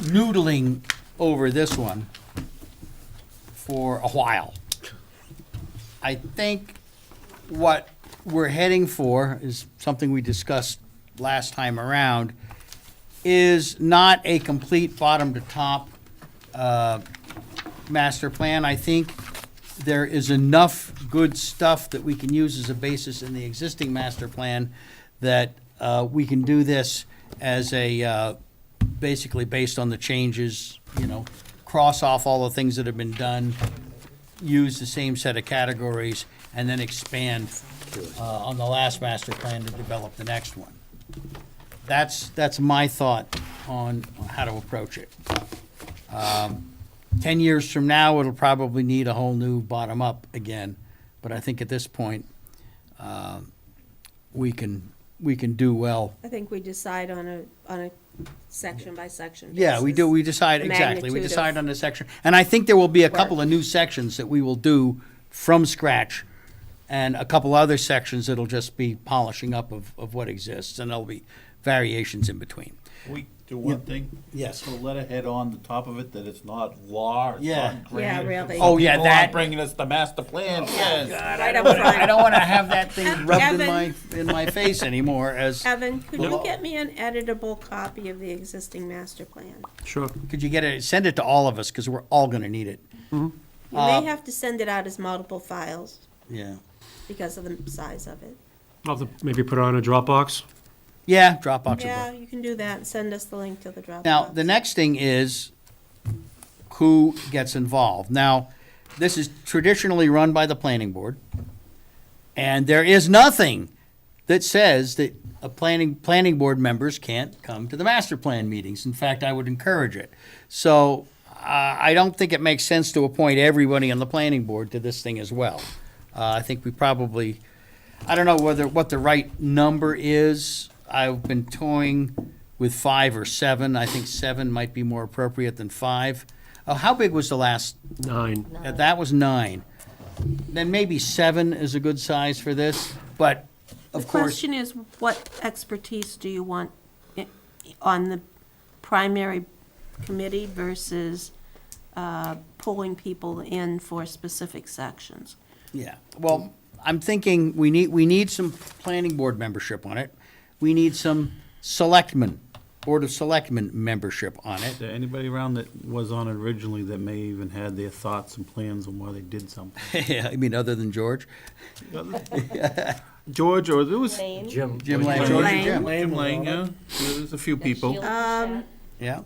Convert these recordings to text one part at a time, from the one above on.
noodling over this one for a while. I think what we're heading for is something we discussed last time around, is not a complete bottom-to-top uh, master plan. I think there is enough good stuff that we can use as a basis in the existing master plan that uh, we can do this as a, uh, basically based on the changes, you know, cross off all the things that have been done, use the same set of categories, and then expand uh, on the last master plan to develop the next one. That's, that's my thought on how to approach it. Um, Ten years from now, it'll probably need a whole new bottom-up again, but I think at this point, um, we can, we can do well. I think we decide on a, on a section by section. Yeah, we do, basis. we decide, exactly, we magnitude of- decide on the section. And I think there will be a couple Work. of new sections that we will do from scratch, and a couple other sections that'll just be polishing up of, of what exists, and there'll be variations in between. We do one thing? Yes. Put a letterhead on the top of it that it's not law, it's Yeah. not granted. Yeah, really. Oh, Oh, yeah, People aren't that- Bringing us the master plan, yes. Right up front. I don't wanna have that thing rubbed in Evan. my, in my face anymore as, Evan, could you Well- get me an editable copy of the existing master plan? Sure. could you get it, send it to all of us, because we're all gonna need it. You Uh, may have to send it out as multiple files Yeah. because of the size of it. I'll have to maybe put it on a Dropbox. Yeah, Dropbox will work. Yeah, you can do that and send us the link to the Dropbox. Now, the next thing is who gets involved. Now, this is traditionally run by the planning board, and there is nothing that says that a planning, planning board members can't come to the master plan meetings. In fact, I would encourage it. So I, I don't think it makes sense to appoint everybody on the planning board to this thing as well. Uh, I think we probably, I don't know whether, what the right number is. I've been toying with five or seven. I think seven might be more appropriate than five. Uh, how big was the last? Nine. uh, That was nine. Then maybe seven is a good size for this, but of The course. question is, what expertise do you want i- on the primary committee versus uh, pulling people in for specific sections? Yeah, well, I'm thinking we need, we need some planning board membership on it. We need some selectmen, Board of Selectmen membership on it. Is there anybody around that was on it originally that may even had their thoughts and plans on why they did something? Yeah, I mean, other than George. George, or there was. Jim. Jim Lang. Lang, George Lang. and Jim, Jim Lang, yeah, there's a few people. Um, yeah.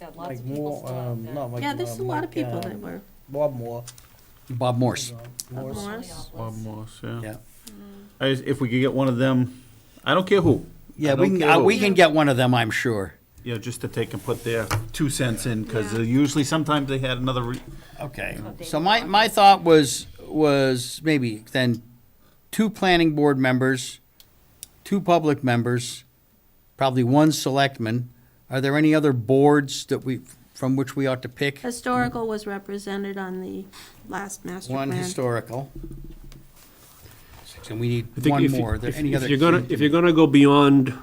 Got lots Like of people more, still out um, there. not like. Yeah, there's a uh, lot of Mike, people uh, that were, Bob Moore. Bob Morse, Morris. Morris, Bob Morse, yeah. yeah. Mm. I just- If we could get one of them, I don't care who. I Yeah, we don't can, care uh, who. we can get one of them, I'm sure. Yeah, just to take and put their two cents in, because usually, sometimes they had another, re- Okay, so my, my thought was, was maybe then two planning board members, two public members, probably one selectman. Are there any other boards that we, from which we ought to pick? historical was represented on the last master plan. One historical. And we I need think one if you- more. Are there if- any if other? you're gonna- If you're gonna go beyond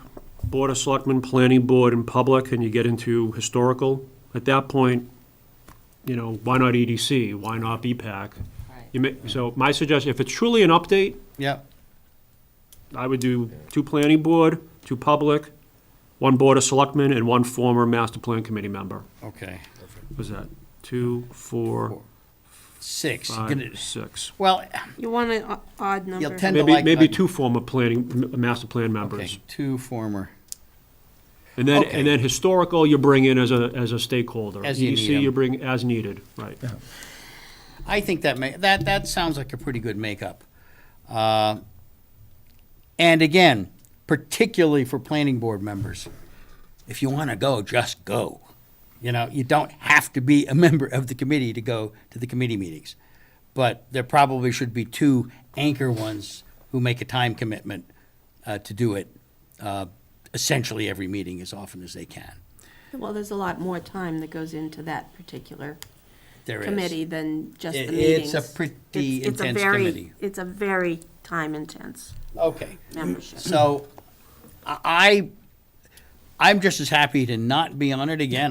Board of Selectmen, Planning Board, and Public, and you get into historical, at that point, you know, why not EDC? Why not BPAC? You may, so my suggestion, if it's truly an update, Yeah, I would do two Planning Board, two Public, one Board of Selectmen, and one former Master Plan Committee member. okay. Was that two, four, Six. Gonna- five, six? Well, You want an o- odd number. ten- Kinda Maybe, like maybe that. two former planning, m- master plan okay, members. two former. And then, Okay. and then historical, you bring in as a, as a stakeholder. As you need EDC, you 'em. bring as needed, right. I think that may, that, that sounds like a pretty good makeup. Uh, And again, particularly for planning board members, if you want to go, just go. You know, you don't have to be a member of the committee to go to the committee meetings. But there probably should be two anchor ones who make a time commitment uh, to do it uh, essentially every meeting as often as they can. Well, there's a lot more time that goes into that particular There is. committee than just the It- meetings. it's a pretty It's- it's a intense very- committee. It's a very time-intense Okay. membership. So I, I'm just as happy to not be on it again.